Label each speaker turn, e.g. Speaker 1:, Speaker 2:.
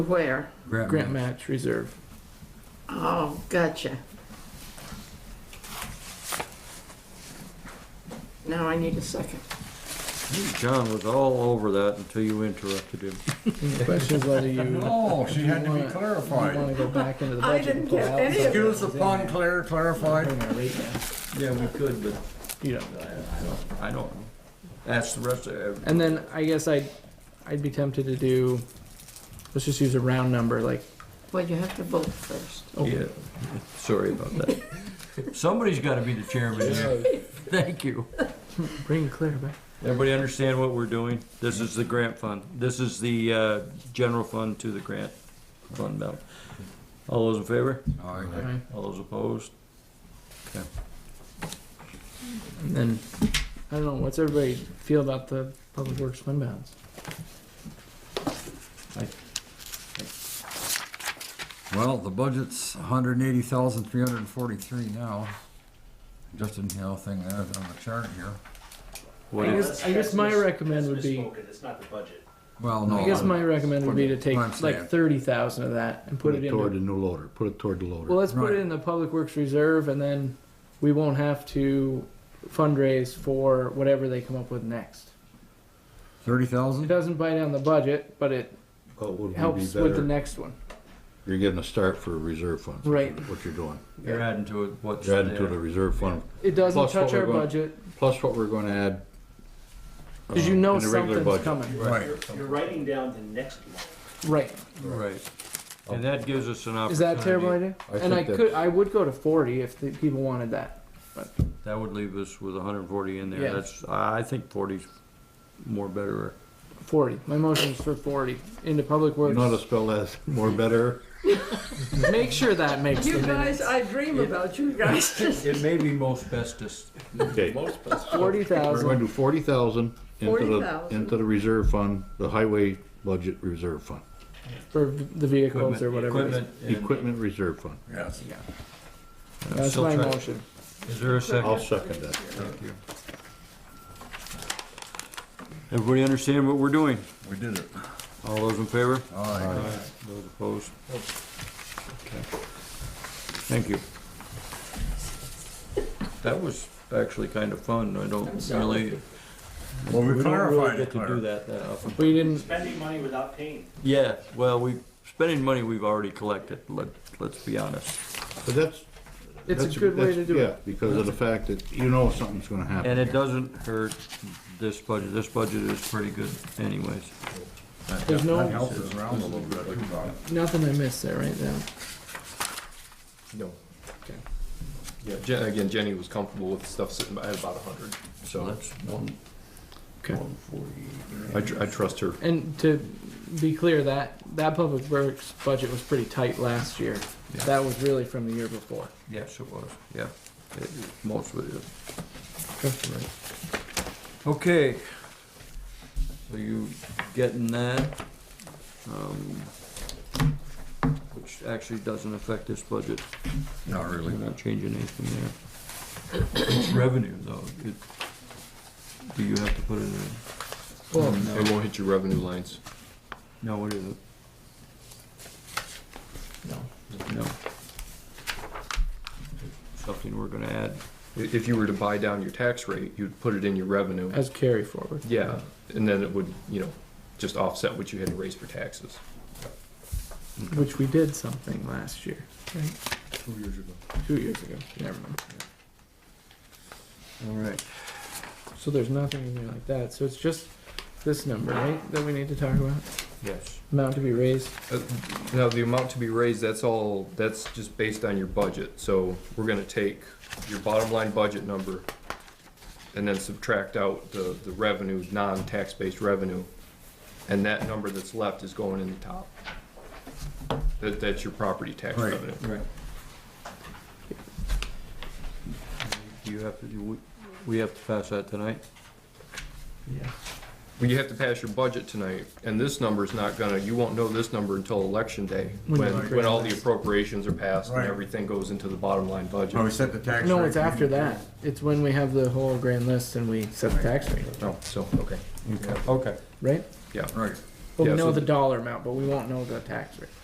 Speaker 1: Where?
Speaker 2: Grant
Speaker 3: Grant
Speaker 2: match.
Speaker 3: match reserve.
Speaker 1: Oh, gotcha. Now I need a second.
Speaker 4: John was all over that until you interrupted him.
Speaker 3: Any questions whether you
Speaker 2: No, she had to be
Speaker 3: Wanna- want
Speaker 2: clarified.
Speaker 3: to go back into the
Speaker 1: I
Speaker 3: budget?
Speaker 1: didn't
Speaker 3: and pull
Speaker 1: get
Speaker 3: out
Speaker 1: any of
Speaker 3: something
Speaker 2: Excuse the
Speaker 3: that was in
Speaker 2: pun,
Speaker 3: there?
Speaker 2: Claire,
Speaker 3: I'm
Speaker 2: clarified.
Speaker 3: gonna rate that.
Speaker 4: Yeah, we could, but
Speaker 3: You don't know.
Speaker 4: I don't know. That's the rest of,
Speaker 3: And then I guess I'd, I'd be tempted to do, let's just use a round number, like,
Speaker 1: Well, you have to vote first.
Speaker 3: oh,
Speaker 4: yeah, sorry about that. Somebody's gotta be the chairman here. Thank you.
Speaker 3: bring Claire back.
Speaker 4: Everybody understand what we're doing? This is the grant fund. This is the, uh, general fund to the grant fund balance. All those in favor?
Speaker 2: Aye.
Speaker 3: Alright,
Speaker 4: All those opposed?
Speaker 3: And then, I don't know, what's everybody feel about the public works fund balance?
Speaker 2: Well, the budget's hundred and eighty thousand, three hundred and forty-three now. Just in the other thing there on the chart here.
Speaker 4: What
Speaker 3: I
Speaker 4: is,
Speaker 3: guess- I guess my
Speaker 5: That's mis-
Speaker 3: recommend
Speaker 5: that's
Speaker 3: would be-
Speaker 5: misspoken. It's not the budget.
Speaker 2: Well, no.
Speaker 3: I guess my recommend would be to take
Speaker 2: What I'm saying.
Speaker 3: like thirty thousand of that and put it
Speaker 6: Toward the
Speaker 3: in,
Speaker 6: new loader, put it toward the
Speaker 3: well,
Speaker 6: loader.
Speaker 3: let's put
Speaker 2: Right.
Speaker 3: it in the public works reserve and then we won't have to fundraise for whatever they come up with next.
Speaker 2: Thirty
Speaker 3: It
Speaker 2: thousand?
Speaker 3: doesn't bite on the budget, but it
Speaker 6: What would we be
Speaker 3: helps with the
Speaker 6: better?
Speaker 3: next one.
Speaker 6: You're getting a start for reserve funds.
Speaker 3: Right.
Speaker 6: What you're doing.
Speaker 4: you're adding to it what's
Speaker 6: You're adding to the
Speaker 4: there.
Speaker 6: reserve fund,
Speaker 3: It doesn't
Speaker 6: Plus what
Speaker 3: touch
Speaker 6: we're
Speaker 3: our
Speaker 6: going-
Speaker 3: budget,
Speaker 6: plus what we're gonna add.
Speaker 3: because you
Speaker 6: um,
Speaker 3: know
Speaker 6: in the regular
Speaker 3: something's
Speaker 6: budget.
Speaker 3: coming.
Speaker 2: Right.
Speaker 5: You're, you're writing down the next line.
Speaker 3: Right.
Speaker 4: Right. And that gives us an
Speaker 3: Is that a terrible
Speaker 4: opportunity.
Speaker 3: idea?
Speaker 6: I
Speaker 3: And I
Speaker 6: think
Speaker 3: could,
Speaker 6: that's-
Speaker 3: I would go to forty if the people wanted that.
Speaker 4: That would leave us with hundred and forty in there.
Speaker 3: Yeah.
Speaker 4: That's, I think forty's more better.
Speaker 3: Forty. My motion's for forty into public
Speaker 6: You know how to
Speaker 3: works.
Speaker 6: spell that more better?
Speaker 3: Make sure that makes the
Speaker 1: You guys,
Speaker 3: minutes.
Speaker 1: I dream about you guys.
Speaker 4: It may be most bestest.
Speaker 6: Okay,
Speaker 3: Forty
Speaker 6: we're gonna
Speaker 3: thousand.
Speaker 6: do forty thousand into the,
Speaker 1: 40,000.
Speaker 6: into the reserve fund, the highway budget reserve fund,
Speaker 3: For the vehicles or whatever. it is.
Speaker 4: Equipment. and-
Speaker 6: equipment reserve fund.
Speaker 2: Yes.
Speaker 4: I'm
Speaker 3: That's
Speaker 4: still
Speaker 3: my
Speaker 4: trying-
Speaker 3: motion.
Speaker 4: Is there a
Speaker 6: I'll
Speaker 4: second?
Speaker 6: second that.
Speaker 4: Everybody understand what we're doing?
Speaker 2: We did it.
Speaker 4: All those in favor?
Speaker 2: Aye.
Speaker 4: Those opposed? Okay. Thank you. That was actually kind of fun. I don't really,
Speaker 2: Well,
Speaker 4: we
Speaker 2: we
Speaker 4: don't really
Speaker 2: clarified it,
Speaker 4: get to do
Speaker 2: Claire.
Speaker 4: that that often.
Speaker 3: We didn't,
Speaker 5: Spending money without paying.
Speaker 4: Yeah, well, we, spending money we've already collected, let, let's be honest.
Speaker 6: But that's.
Speaker 3: it's a
Speaker 6: that's-
Speaker 3: good way
Speaker 6: that's-
Speaker 3: to do
Speaker 6: Yeah,
Speaker 3: it.
Speaker 6: because of the fact that you know something's gonna happen.
Speaker 4: And it doesn't hurt this budget. This budget is pretty good anyways.
Speaker 3: There's
Speaker 2: That
Speaker 3: no,
Speaker 2: helps us around a little bit. Look at that.
Speaker 3: nothing I missed there right now.
Speaker 7: No. Okay. Yeah, Jen, again, Jenny was comfortable with stuff sitting at about hundred,
Speaker 4: So
Speaker 7: so
Speaker 4: that's one,
Speaker 3: Okay.
Speaker 4: one forty.
Speaker 7: I, tr- I trust her.
Speaker 3: And to be clear, that, that public works budget was pretty tight last year.
Speaker 4: Yeah.
Speaker 3: That was really from the year before.
Speaker 4: Yes, it was, yeah. It- Most of it is. Right. Okay. So you getting that? Um, Which actually doesn't affect this budget.
Speaker 2: Not really.
Speaker 4: We're not changing anything there. Revenue though, it, do you have to put it in?
Speaker 3: Well,
Speaker 4: No.
Speaker 7: Mm-hmm. It won't hit your revenue lines.
Speaker 4: No, what is it? No. No. Something we're gonna add.
Speaker 7: I- If you were to buy down your tax rate, you'd put it in your revenue.
Speaker 3: as carry forward. Uh,
Speaker 7: Yeah, and then it would, you know, just offset what you had to raise for taxes.
Speaker 3: Which we did something last year, right? Two years ago. Never mind.
Speaker 4: All right.
Speaker 3: So there's nothing in there like that. So it's just this number, right, that we need to talk about?
Speaker 4: Yes.
Speaker 3: Amount to be raised.
Speaker 7: Uh, Now, the amount to be raised, that's all, that's just based on your budget, so we're gonna take your bottom line budget number and then subtract out the, the revenue, non-tax-based revenue, and that number that's left is going in the top. That, that's your property tax
Speaker 2: Right.
Speaker 7: revenue.
Speaker 4: Right. Do you have to, do we, we have to pass that tonight?
Speaker 7: Well, you have to pass your budget tonight, and this number's not gonna, you won't know this number until election day,
Speaker 3: When
Speaker 7: when,
Speaker 3: you create
Speaker 7: when all
Speaker 3: the
Speaker 7: the
Speaker 3: list.
Speaker 7: appropriations are passed and
Speaker 2: Right.
Speaker 7: everything goes into the bottom line budget.
Speaker 2: Oh, we set the tax rate.
Speaker 3: No, it's after that. It's when we have the whole grand list and we set the tax rate,
Speaker 7: Oh, so, okay,
Speaker 4: Okay. Okay.
Speaker 3: right?
Speaker 7: yeah.
Speaker 2: Right.
Speaker 3: Well,
Speaker 7: Yeah,
Speaker 3: we know
Speaker 7: so
Speaker 3: the
Speaker 7: the-
Speaker 3: dollar amount, but we won't know the tax rate.